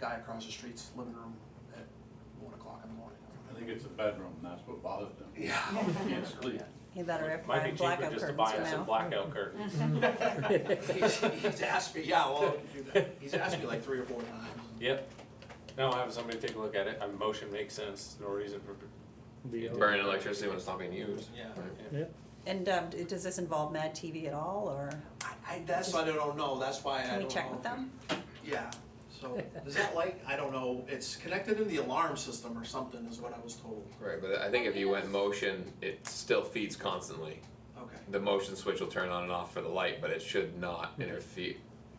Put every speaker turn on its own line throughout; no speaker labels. guy across the street's living room at one o'clock in the morning.
I think it's a bedroom, and that's what bothers them.
Yeah.
Can't sleep.
He better have
Might be
black
cheaper
blackout
just to
curtains
buy him some
now.
blackout
Mm-hmm.
curtains.
He's, he's asked me, yeah, well, he's asked me like three or four times.
Yep. No, I'll have somebody take a look at it. I mean, motion makes sense, no reason for,
Be all-
Burning electricity when it's not being used.
Yeah.
Yeah,
And um, d- does this involve Mad TV at all, or
I, I, that's why I don't know, that's why I don't know.
can we check with them?
Yeah, so, is that light, I don't know, it's connected in the alarm system or something is what I was told.
Right, but I think if you went motion, it still feeds constantly.
Okay,
The motion switch will turn on and off for the light, but it should not interfere.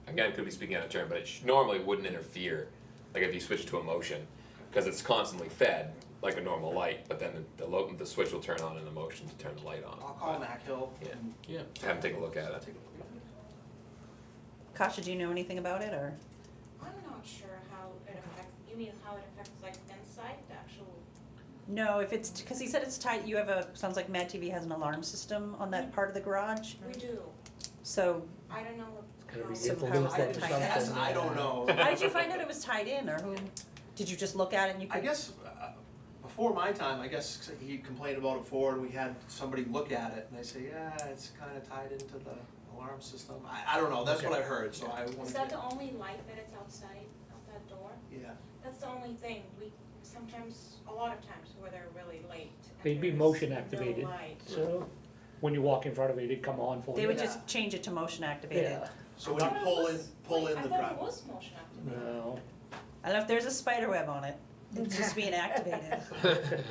Again, could be speaking out of turn, but it sh- normally wouldn't interfere. Like if you switch to a motion, because it's constantly fed like a normal light, but then the, the, lo- the switch will turn on in the motion to turn the light on.
I'll call Mac Hill
Yeah.
and
yeah.
Have him take a look at
I'll
it.
take a look at it.
Kasha, do you know anything about it, or
I'm not sure how it affects, you mean how it affects like inside the actual,
no? If it's because he said it's tied, you have a sounds like Mad TV has an alarm system on that part of the garage,
we do,
so
I don't know
Gotta
how.
be
Some
implemented
powers that
or
tighten.
something.
That's, I don't know.
How did you find out it was tied in, or who, did you just look at it and you
I
could?
guess, uh, before my time, I guess he complained about it forward, we had somebody look at it, and they say, yeah, it's kinda tied into the alarm system, I, I don't know, that's what I heard, so I
Is
wanted
that the
to,
only light that it's outside of that door?
yeah.
That's the only thing, we sometimes, a lot of times where they're really late. and
They'd be
there's
motion
no
activated.
light.
so when you walk in front of it, it'd come on for
They
you.
would just change it to motion activated.
Yeah,
So when you
I thought it
pull in,
was-
pull
wait,
in the
I thought it
driveway,
was motion activated.
no,
I don't know if there's a spider web on it, it's just being activated.
Okay.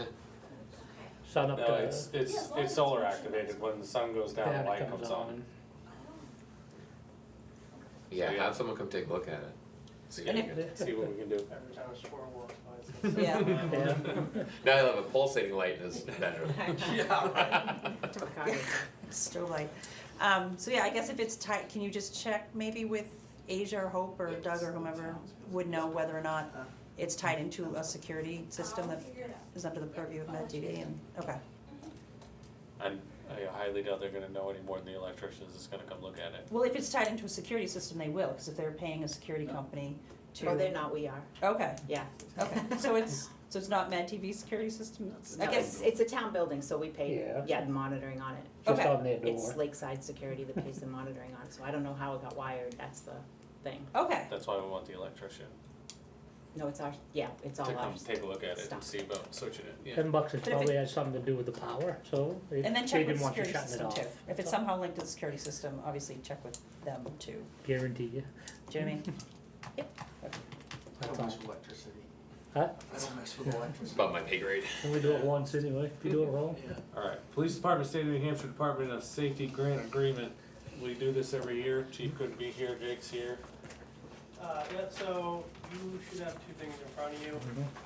sun up
No,
to,
it's,
Yeah,
it's,
as long as
it's
it's
solar
motion.
activated. When the sun goes down,
then
the
it
light
comes on.
Yeah,
Yeah.
have someone come take a look at it.
And
See what
if-
you can-
See what we can do.
Every time a squirrel walks by. it's-
Yeah.
Yeah.
Now he'll have a pulsating light in his bedroom.
yeah, right.
Still light. Um, so yeah, I guess if it's tight, can you just check maybe with Asia or Hope or Doug or whomever would know whether or not it's tied into a security system
I'll
that
figure it out.
is under the purview of Med TV and, okay.
And I highly doubt they're gonna know any more than the electricians that's gonna come look at it.
Well, if it's tied into a security system, they will, because if they're paying a security company to.
Oh, they're not, we are,
Okay,
yeah.
okay. So it's, so it's not Med TV security system? It's- I
No,
guess,
it's, it's a town building, so we pay,
Yeah.
yeah, monitoring on it.
Just
Okay.
on their
It's
door.
Lakeside Security that pays the monitoring on it, so I don't know how it got wired, that's the thing.
okay,
That's why we want the electrician
No, it's our, yeah, it's
to
all
come
ours.
take a look at it
Stop.
and see about switching it, yeah.
Ten bucks is
But if it-
probably has something to do with the power, so they
and
they
then check with
didn't
the
want you
security
shutting it
system
off.
too. If it's somehow linked to the security system, obviously check with them too.
Guarantee you,
Do you know what I mean?
I don't
that's all.
mess with electricity.
Huh?
I don't mess with electricity.
Above my pay grade.
And we do it once anyway, if you do it wrong.
Yeah.
Alright, Police Department, State of New Hampshire Department of Safety Grant Agreement. We do this every year. Chief couldn't be here, Jake's here.
Uh, yeah, so you should have two things in front of you.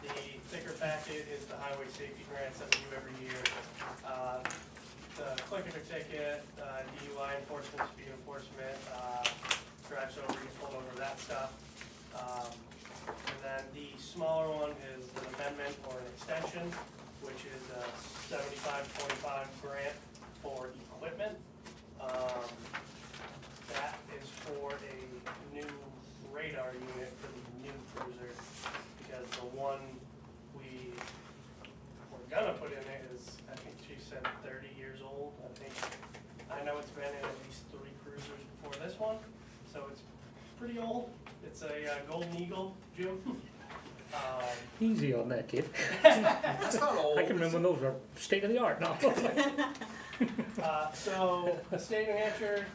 The thicker packet is the highway safety grants that we do every year. Uh, The clicker ticket, uh, DUI enforcement, speed enforcement, uh, drives over, you pulled over, that stuff. Um, And then the smaller one is an amendment or an extension, which is a seventy-five twenty-five grant for equipment. Um, That is for a new radar unit for the new cruiser, because the one we were gonna put in it is, I think she said thirty years old, I think. I know it's been in at least three cruisers before this one, so it's pretty old. It's a uh, Golden Eagle, Jim. Um,
Easy on that kid,
That's not old.
I can remember when those were state of the art now.
Uh, so, the state of New Hampshire,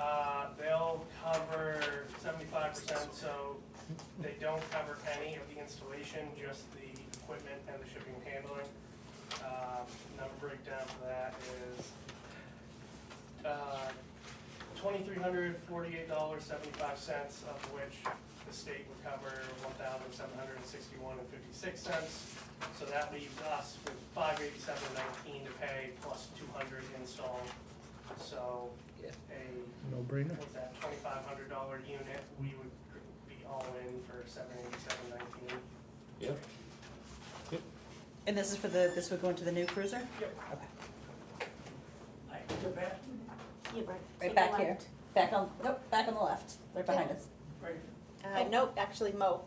uh, they'll cover seventy-five percent, so they don't cover any of the installation, just the equipment and the shipping and handling. Um, Number breakdown for that is, uh, twenty-three hundred forty-eight dollars seventy-five cents, of which the state would cover one thousand seven hundred and sixty-one and fifty-six cents. So that leaves us with five eighty-seven nineteen to pay plus two hundred install. So
Yeah.
a,
No brainer.
what's that, twenty-five hundred dollar unit, we would be all in for seven eighty-seven nineteen.
Yep.
And this is for the, this would go into the new cruiser?
Yep.
Okay.
I go back,
Right back here, back on, nope, back on the left, right behind us.
right
Uh, nope, actually, Mo,